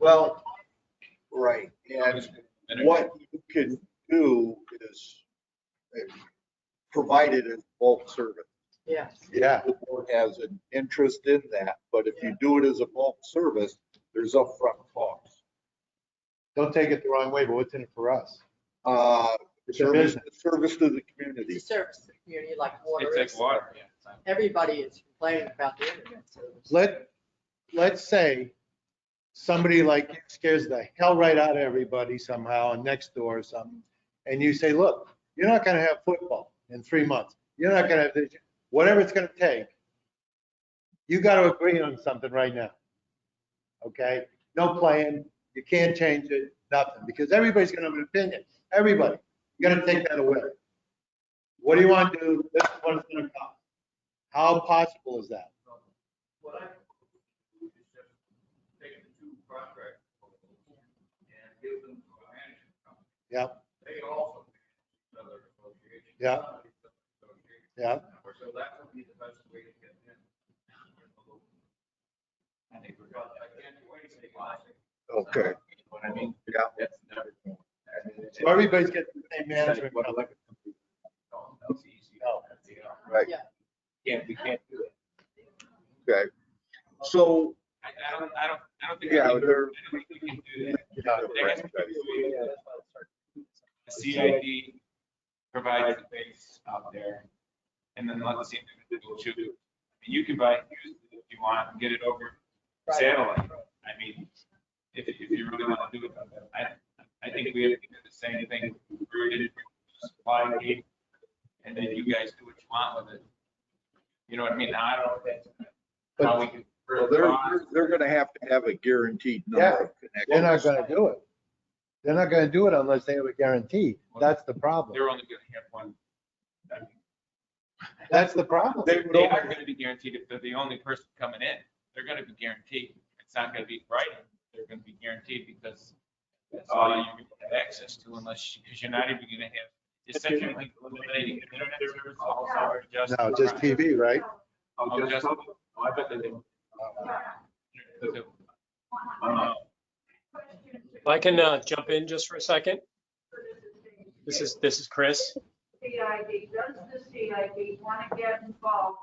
Well, right, and what you can do is, eh, provided it's bulk service. Yeah, Yeah, The board has an interest in that, but if you do it as a bulk service, there's upfront costs. don't take it the wrong way, but what's in it for us? Uh, It's a Service, business. service to the it's community. a service to the community like water It's is. like water, yeah. Everybody is complaining about the internet service. Let, let's say somebody like you scares the hell right out of everybody somehow and next door or something. And you say, look, you're not gonna have football in three months. You're not gonna have, this. whatever it's gonna take. You gotta agree on something right now. Okay? No plan. You can't change it, nothing, because everybody's gonna have an opinion. Everybody. You gotta take that away. What do you want to do? This is what it's gonna cost. How possible is that? What I propose is just take the two contract proposals and give them to a management company. Yep. They also manage another association. Yeah. Yeah. So that would be the best way to get them. I think we're. I can't do anything. Okay. You know What I mean? Yeah. That's never. going to happen. So everybody's getting the same management. What company. electric company? No, That's easy. No. Right. Yeah. Can't, we can't do it. Okay, so, I, I don't, I don't, I don't think. we yeah, can- there. I don't think we can do that. There has to Right. be a way that the CID provides the base out there, and then let the individual choose. I mean, You can buy, it used if you want, and get it over Right. satellite. I mean, if, if you really want to do it, I, I think we have to do the same thing, rooted supply chain, and then you guys do what you want with it. You know what I mean? I don't think. how we can- Well, they're, they're- they're gonna have to have a guaranteed number of They're connections. not gonna do it. They're not gonna do it unless they have a guarantee. That's the problem. They're only gonna have one. I mean, That's the problem. They, they are gonna be guaranteed if they're the only person coming in, they're gonna be guaranteed. It's not gonna be right. They're gonna be guaranteed because that's all you're gonna have access to unless, because you're not even gonna have, essentially eliminating internet service, all power just. No, just TV, right? Oh, just- oh, I bet they do. Uh, If I can uh, jump in just for a second. This is, this is Chris. CID, does the CID want to get involved,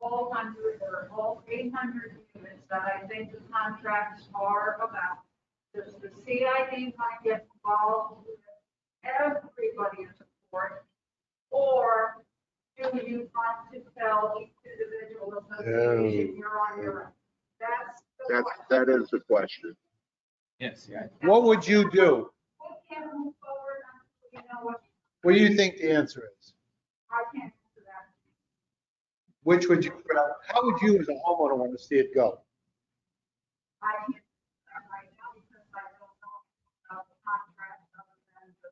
all hundred or all eight hundred units that I think the contracts are about? Does the CID want to get involved with everybody in support? Or do you want to tell each individual association you're on your own? That's the That, question. that is the question. Yes, yeah. What would you do? We can't move forward until we know what, What do you think the answer is? I can't answer that. Which would you, how would you as a homeowner want to see it go? I can't do that right now because I don't know about the contract other than the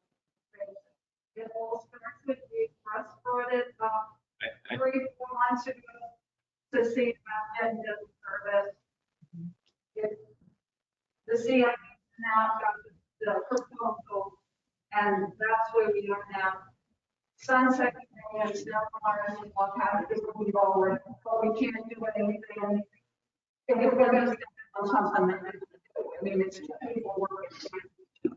basic. It all starts with the press brought it up I- I- three, four months ago to see about end of service. It- The CIP now got the- the proposal and that's where we are now. Sunset Canyon is now part of what happened, we already, but we can't do anything if we're gonna step on something, then we have to do it. I mean, it's two people working.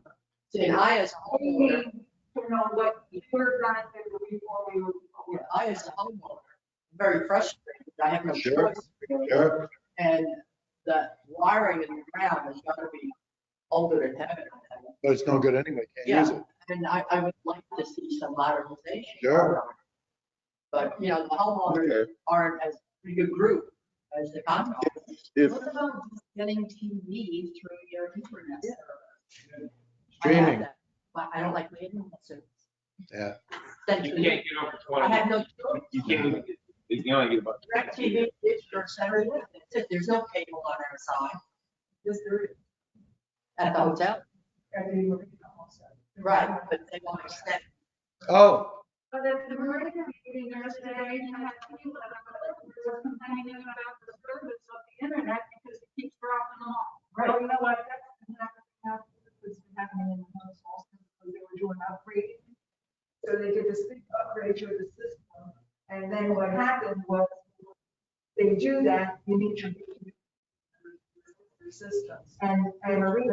See, I as a We need homeowner, to know what you're gonna do before we move yeah, forward. I as a homeowner, am very frustrated. I have no Sure. choice. really. And the wiring in the ground is gonna be older than heaven. But it's no good anyway, can't Yeah, use it. and I, I would like to see some modernization. Sure. But, you know, the homeowners Okay. aren't as big a group as the contractors. If, What about just getting TV through your internet service? I have Streaming. that, But I don't like the internet service. Yeah. You Essentially, can't get over I twenty. have no choice. You can't, even get- you can only get about. DirecTV, Dish, or Saturday, that's it. there's no cable on our side. Yes, there is. At the hotel, right, but they won't extend. Oh, But at the Marina meeting yesterday, I had people that were complaining about the service of the internet because it keeps dropping off. Well, you know what, that's been happening now, this has been happening in the house also, because they were doing upgrade. So they did this big upgrade to the system, and then what happened was, they do that, you need your. assistance. And, and Maria